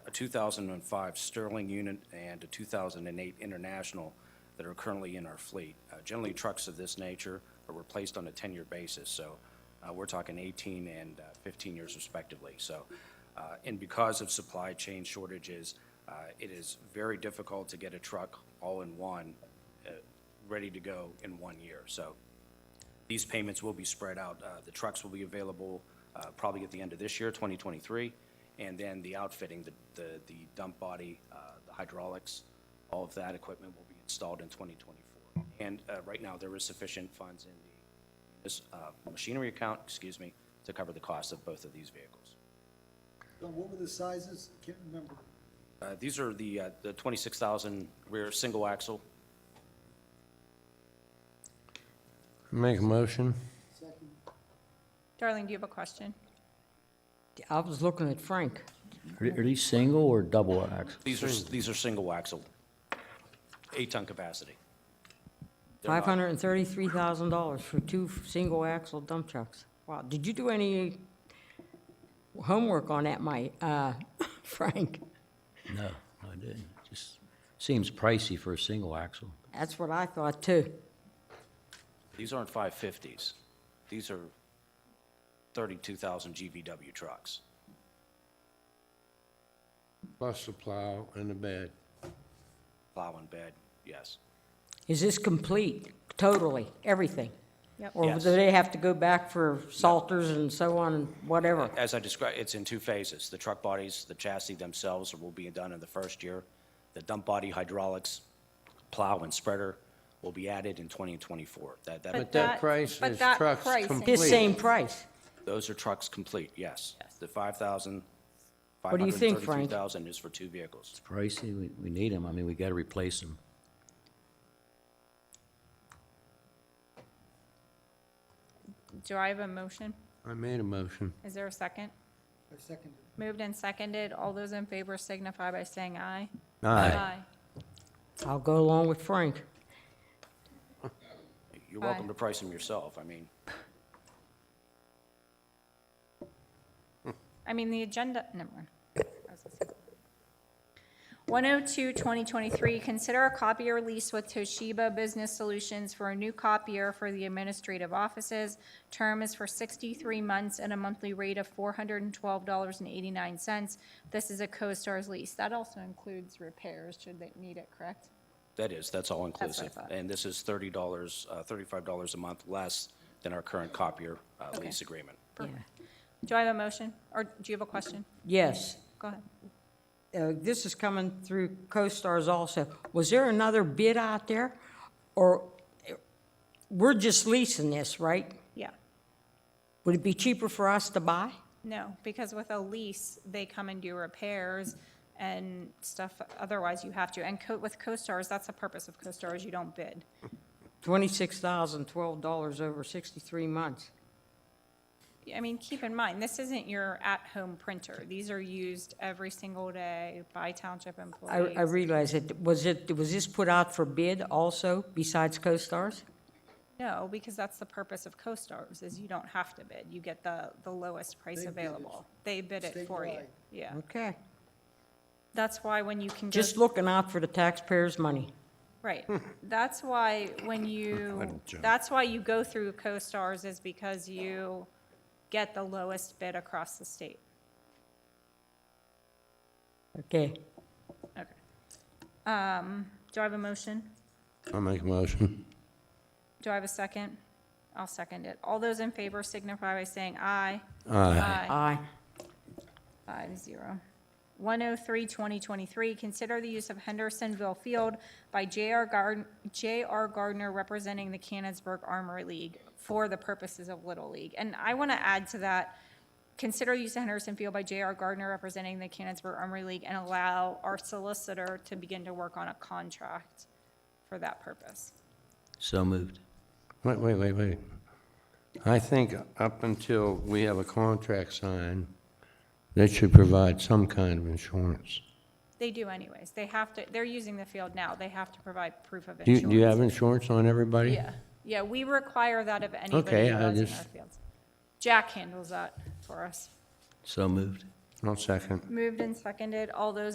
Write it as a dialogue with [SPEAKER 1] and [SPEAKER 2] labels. [SPEAKER 1] 2005 Sterling unit and a 2008 International that are currently in our fleet. Uh, Generally, trucks of this nature are replaced on a 10-year basis, so uh, we're talking 18 and uh, 15 years respectively. So, uh, and because of supply chain shortages, uh, it is very difficult to get a truck all in one, uh, ready to go in one year. So these payments will be spread out. Uh, The trucks will be available uh, probably at the end of this year, 2023, and then the outfitting, the- the the dump body, uh, the hydraulics, all of that equipment will be installed in 2024. And uh, right now, there is sufficient funds in the this, uh, machinery account, excuse me, to cover the cost of both of these vehicles.
[SPEAKER 2] Don, what were the sizes? Can't remember.
[SPEAKER 1] Uh, These are the uh, the 26,000 rear single axle.
[SPEAKER 3] Make a motion.
[SPEAKER 2] Second,
[SPEAKER 4] Darling, do you have a question?
[SPEAKER 5] I was looking at Frank.
[SPEAKER 6] Are are these single or double axle?
[SPEAKER 1] These are, these are single axle, eight-ton capacity. They're not-
[SPEAKER 5] $533,000 for two single-axle dump trucks. Wow, did you do any homework on that, Mike, uh, Frank?
[SPEAKER 6] No, I didn't. Just seems pricey for a single axle.
[SPEAKER 5] That's what I thought, too.
[SPEAKER 1] These aren't 550s. These are 32,000 GVW trucks.
[SPEAKER 3] Plus the plow and the bed.
[SPEAKER 1] Plow and bed, yes.
[SPEAKER 5] Is this complete, totally, everything?
[SPEAKER 4] Yep.
[SPEAKER 5] Or do
[SPEAKER 1] Yes.
[SPEAKER 5] they have to go back for salters and so on, and whatever?
[SPEAKER 1] As I described, it's in two phases. The truck bodies, the chassis themselves will be done in the first year. The dump body hydraulics, plow and spreader will be added in 20 and 24. That,
[SPEAKER 3] But
[SPEAKER 1] that,
[SPEAKER 3] that
[SPEAKER 4] that-
[SPEAKER 3] price
[SPEAKER 4] but
[SPEAKER 3] is
[SPEAKER 4] that
[SPEAKER 3] trucks
[SPEAKER 4] price is-
[SPEAKER 3] complete.
[SPEAKER 5] This same price?
[SPEAKER 1] those are trucks complete, yes.
[SPEAKER 4] Yes.
[SPEAKER 1] The 5,000,
[SPEAKER 5] What do you think, Frank?
[SPEAKER 1] 533,000 is for two vehicles.
[SPEAKER 6] Pricey, we, we need them. I mean, we gotta replace them.
[SPEAKER 4] Do I have a motion?
[SPEAKER 3] I made a motion.
[SPEAKER 4] Is there a second?
[SPEAKER 2] I seconded.
[SPEAKER 4] Moved and seconded. All those in favor signify by saying aye.
[SPEAKER 5] I'll go along with Frank.
[SPEAKER 1] You're welcome
[SPEAKER 4] Aye.
[SPEAKER 1] to price them yourself. I mean,
[SPEAKER 4] I mean, the agenda, never mind. oh I was gonna say. 102, 2023, consider a copier lease with Toshiba Business Solutions for a new copier for the administrative offices. Term is for 63 months at a monthly rate of $412.89. This is a CoStarz lease. That also includes repairs, should they need it, correct?
[SPEAKER 1] that is, that's all
[SPEAKER 4] I
[SPEAKER 1] inclusive.
[SPEAKER 4] thought.
[SPEAKER 1] And this is $30, uh, $35 a month less than our current copier uh, lease agreement.
[SPEAKER 4] Perfect. Do I have a motion, or do you have a question?
[SPEAKER 5] Yes.
[SPEAKER 4] Go ahead.
[SPEAKER 5] uh, this is coming through CoStarz also. Was there another bid out there? Or uh, we're just leasing this, right?
[SPEAKER 4] Yeah.
[SPEAKER 5] Would it be cheaper for us to buy?
[SPEAKER 4] No, because with a lease, they come and do repairs and stuff, otherwise you have to. And co- with CoStarz, that's the purpose of CoStarz, you don't bid.
[SPEAKER 5] $26,012 over 63 months.
[SPEAKER 4] I mean, keep in mind, this isn't your at-home printer. These are used every single day by township
[SPEAKER 5] I
[SPEAKER 4] employees.
[SPEAKER 5] I realize it, was it, was this put out for bid also besides CoStarz?
[SPEAKER 4] No, because that's the purpose of CoStarz, is you don't have to bid. You get the, the lowest price
[SPEAKER 2] They bid it.
[SPEAKER 4] available. They bid it for you.
[SPEAKER 2] Statewide.
[SPEAKER 4] Yeah.
[SPEAKER 5] Okay.
[SPEAKER 4] That's why when you can go.
[SPEAKER 5] Just looking out for the taxpayers' money.
[SPEAKER 4] Right. That's why when you, that's why you go through CoStarz is because you get the lowest bid across the state.
[SPEAKER 5] Okay.
[SPEAKER 4] Okay. Um, do I have a motion?
[SPEAKER 3] I make a motion.
[SPEAKER 4] Do I have a second? I'll second it. All those in favor signify by saying aye.
[SPEAKER 3] Aye.
[SPEAKER 4] Aye.
[SPEAKER 5] Aye.
[SPEAKER 4] Five zero. 103, 2023, consider the use of Hendersonville Field by J.R. Gardner, J.R. Gardner representing the Canonsburg Armory League for the purposes of Little League. And I want to add to that, consider use of Henderson Field by J.R. Gardner representing the Canonsburg Armory League and allow our solicitor to begin to work on a contract for that purpose.
[SPEAKER 6] So moved.
[SPEAKER 3] Wait, wait, wait, wait. I think up until we have a contract signed, they should provide some kind of insurance.
[SPEAKER 4] They do anyways. They have to, they're using the field now. They have to provide proof of
[SPEAKER 3] Do you,
[SPEAKER 4] insurance.
[SPEAKER 3] do you have insurance on everybody?
[SPEAKER 4] Yeah, yeah, we require that of anybody
[SPEAKER 3] Okay,
[SPEAKER 4] who
[SPEAKER 3] I
[SPEAKER 4] runs in
[SPEAKER 3] just-
[SPEAKER 4] our fields. Jack handles that for us.
[SPEAKER 6] So moved.
[SPEAKER 3] I'll second.
[SPEAKER 4] Moved and seconded, all those